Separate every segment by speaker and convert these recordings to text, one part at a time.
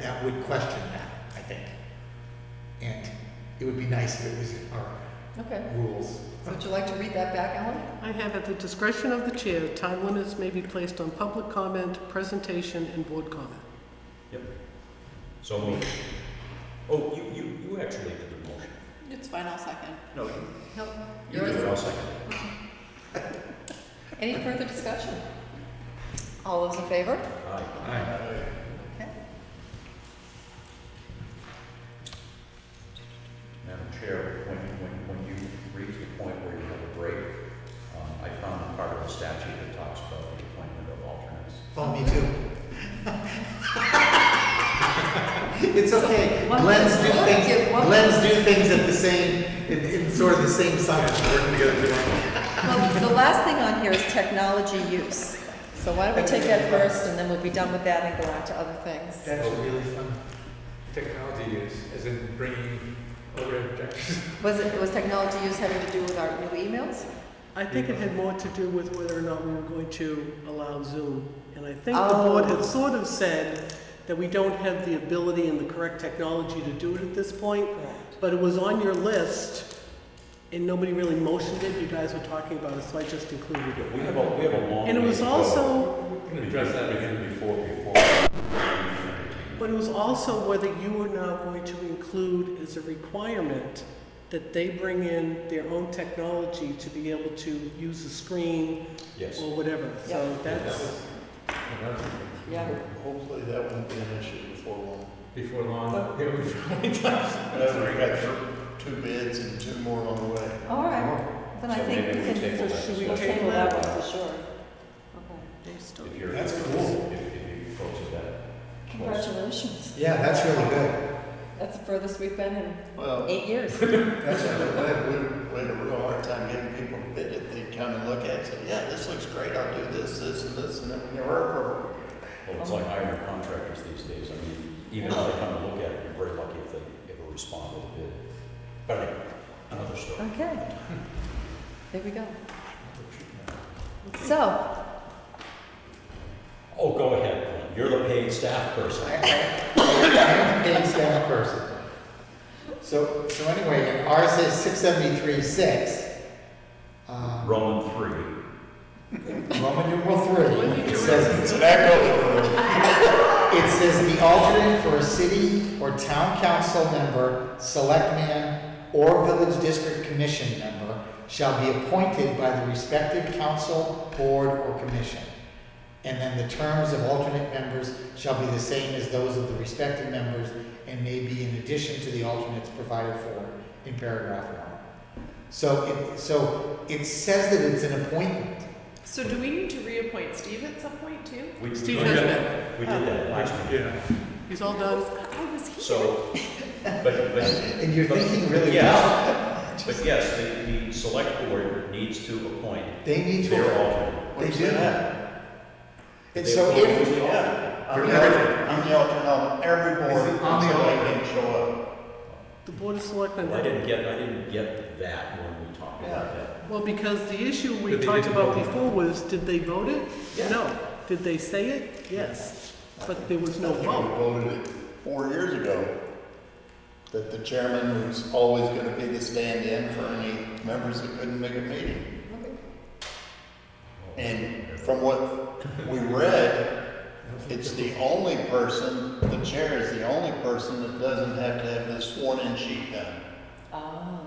Speaker 1: that would question that, I think. And it would be nice if it was in our
Speaker 2: Okay,
Speaker 1: rules.
Speaker 2: So would you like to read that back, Ellen?
Speaker 3: I have at the discretion of the chair, time limits may be placed on public comment, presentation, and board comment.
Speaker 4: So moved. Oh, you, you, you actually did the motion.
Speaker 5: It's fine, I'll second.
Speaker 4: No, you-
Speaker 2: Nope.
Speaker 4: you did it, I'll second.
Speaker 2: Any further discussion? All those in favor?
Speaker 4: Aye.
Speaker 2: Okay.
Speaker 4: Madam Chair, when, when, when you reach the point where you have a break, um, I found part of the statute that talks about the appointment of alternates.
Speaker 1: Oh, me too. It's okay. Glenn's do
Speaker 2: What?
Speaker 1: things,
Speaker 2: What?
Speaker 1: Glenn's do things at the same, in, in sort of the same cycle, working together.
Speaker 2: Well, the last thing on here is technology use. So why don't we take that first, and then we'll be done with that and go on to other things.
Speaker 1: That's really fun.
Speaker 6: Technology use, as in bringing over objections.
Speaker 2: Was it, was technology use having to do with our new emails?
Speaker 3: I think it had more to do with whether or not we were going to allow Zoom. And I think the
Speaker 2: Oh.
Speaker 3: board had sort of said that we don't have the ability and the correct technology to do it at this point. But it was on your list, and nobody really motioned it, you guys were talking about it, so I just included
Speaker 4: But we
Speaker 3: it.
Speaker 4: have a, we have a long.
Speaker 3: And it
Speaker 4: way
Speaker 3: was
Speaker 4: to go.
Speaker 3: also,
Speaker 6: We can address that again.
Speaker 4: Even Before, before.
Speaker 3: but it was also whether you were now going to include as a requirement that they bring in their own technology to be able to use a screen
Speaker 4: Yes.
Speaker 3: or whatever. So that's,
Speaker 2: Yeah.
Speaker 7: Hopefully that won't be an issue before long.
Speaker 6: Before long, it would probably
Speaker 7: I've got two bids and two more on the way.
Speaker 2: All right, then I
Speaker 4: So
Speaker 2: think
Speaker 4: maybe
Speaker 2: Oh. we
Speaker 4: we
Speaker 2: can,
Speaker 4: table
Speaker 2: we'll
Speaker 4: that
Speaker 2: table
Speaker 4: discussion.
Speaker 2: that one for sure. Okay.
Speaker 4: If you're-
Speaker 1: That's cool.
Speaker 4: If, if you approach that. close.
Speaker 2: Congratulations.
Speaker 1: Yeah, that's really good.
Speaker 2: That's the furthest we've been in
Speaker 7: Well,
Speaker 2: eight years.
Speaker 7: that's really good. We, we had a real hard time getting people to bid it. They come and look at it and say, yeah, this looks great. I'll do this, this, and this, and then we never heard from them.
Speaker 4: Well, it's like hiring contractors these days. I mean, even if they come and look at it, you're very lucky if they ever respond with a bid. But anyway, another story.
Speaker 2: Okay. There we go. So,
Speaker 4: Oh, go ahead, Glenn. You're the paid staff person.
Speaker 1: I- I- I'm a paid staff person. So, so anyway, in RSA six seventy-three, six, uh,
Speaker 4: Roman three.
Speaker 1: Roman numeral three, it says,
Speaker 7: So that goes for
Speaker 1: it says the alternate for a city or town council member, selectman, or village district commission member shall be appointed by the respective council, board, or commission. And then the terms of alternate members shall be the same as those of the respective members and may be in addition to the alternates provided for in paragraph one. So it, so it says that it's an appointment.
Speaker 5: So do we need to reappoint Steve at some point too?
Speaker 4: We-
Speaker 3: Steve
Speaker 4: we
Speaker 3: has
Speaker 4: did-
Speaker 3: been.
Speaker 4: We did that last week.
Speaker 6: Yeah.
Speaker 3: he's all done.
Speaker 5: I was here.
Speaker 4: So, but, but,
Speaker 1: And you're thinking really,
Speaker 4: yeah. But yes, the, the select board needs to appoint
Speaker 1: they need to.
Speaker 4: their alternate.
Speaker 1: They
Speaker 7: What's
Speaker 1: do
Speaker 7: that?
Speaker 1: that. And
Speaker 4: They
Speaker 1: so
Speaker 4: appoint
Speaker 1: if,
Speaker 4: the alternate.
Speaker 7: Yeah, I'm the alternate, I'm the alternate
Speaker 1: um,
Speaker 7: on every board
Speaker 1: Is it on the
Speaker 7: until I
Speaker 1: alternate?
Speaker 7: can show up.
Speaker 3: The Board of Selectmen,
Speaker 4: Well, I didn't get, I didn't get that when we talked about that.
Speaker 3: well, because the issue we
Speaker 6: But they
Speaker 3: talked
Speaker 6: didn't
Speaker 3: about
Speaker 6: vote.
Speaker 3: before was, did they vote it?
Speaker 4: Yeah.
Speaker 3: No. Did they say it? Yes. But there was no
Speaker 7: I think we
Speaker 3: vote.
Speaker 7: voted it four years ago that the chairman was always gonna be the stand-in for any members that couldn't make a meeting. And from what we read, it's the only person, the chair is the only person that doesn't have to have this sworn-in sheet done.
Speaker 2: oh,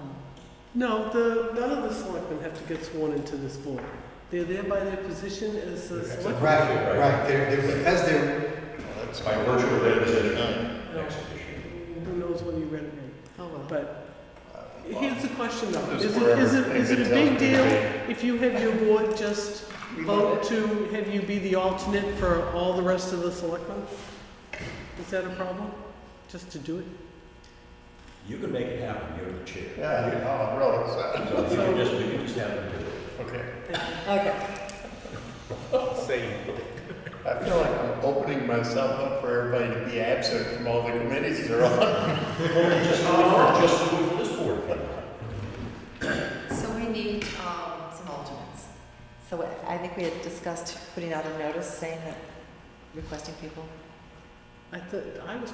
Speaker 3: No, the, none of the selectmen have to get sworn into this board. They're there by their position as a
Speaker 1: right,
Speaker 3: selectman.
Speaker 4: Right.
Speaker 1: right, they're, they're, because they're,
Speaker 7: That's
Speaker 4: By virtue of their position.
Speaker 3: No,
Speaker 4: Exhibition.
Speaker 3: Who knows whether you read it
Speaker 2: oh
Speaker 3: or
Speaker 2: well.
Speaker 3: not. But uh, here's the question though.
Speaker 7: Just
Speaker 3: Is it,
Speaker 7: wherever
Speaker 3: is it, is it a big
Speaker 7: anybody
Speaker 3: deal
Speaker 7: else
Speaker 3: if you have your board just vote to have you be the alternate for all the rest of the selectmen? Is that a problem? Just to do it?
Speaker 4: You can make it happen, you're the chair.
Speaker 7: Yeah, you know, I'm real excited.
Speaker 4: So you can just, you can just have them do it.
Speaker 7: Okay.
Speaker 2: Okay,
Speaker 7: I feel like I'm opening myself up for everybody to be absent from all the committees they're on.
Speaker 4: Just do it for, just do it for this board. if you want.
Speaker 2: so we need um, some alternates. So I- I think we had discussed putting out a notice saying that, requesting people.
Speaker 3: I thought, I was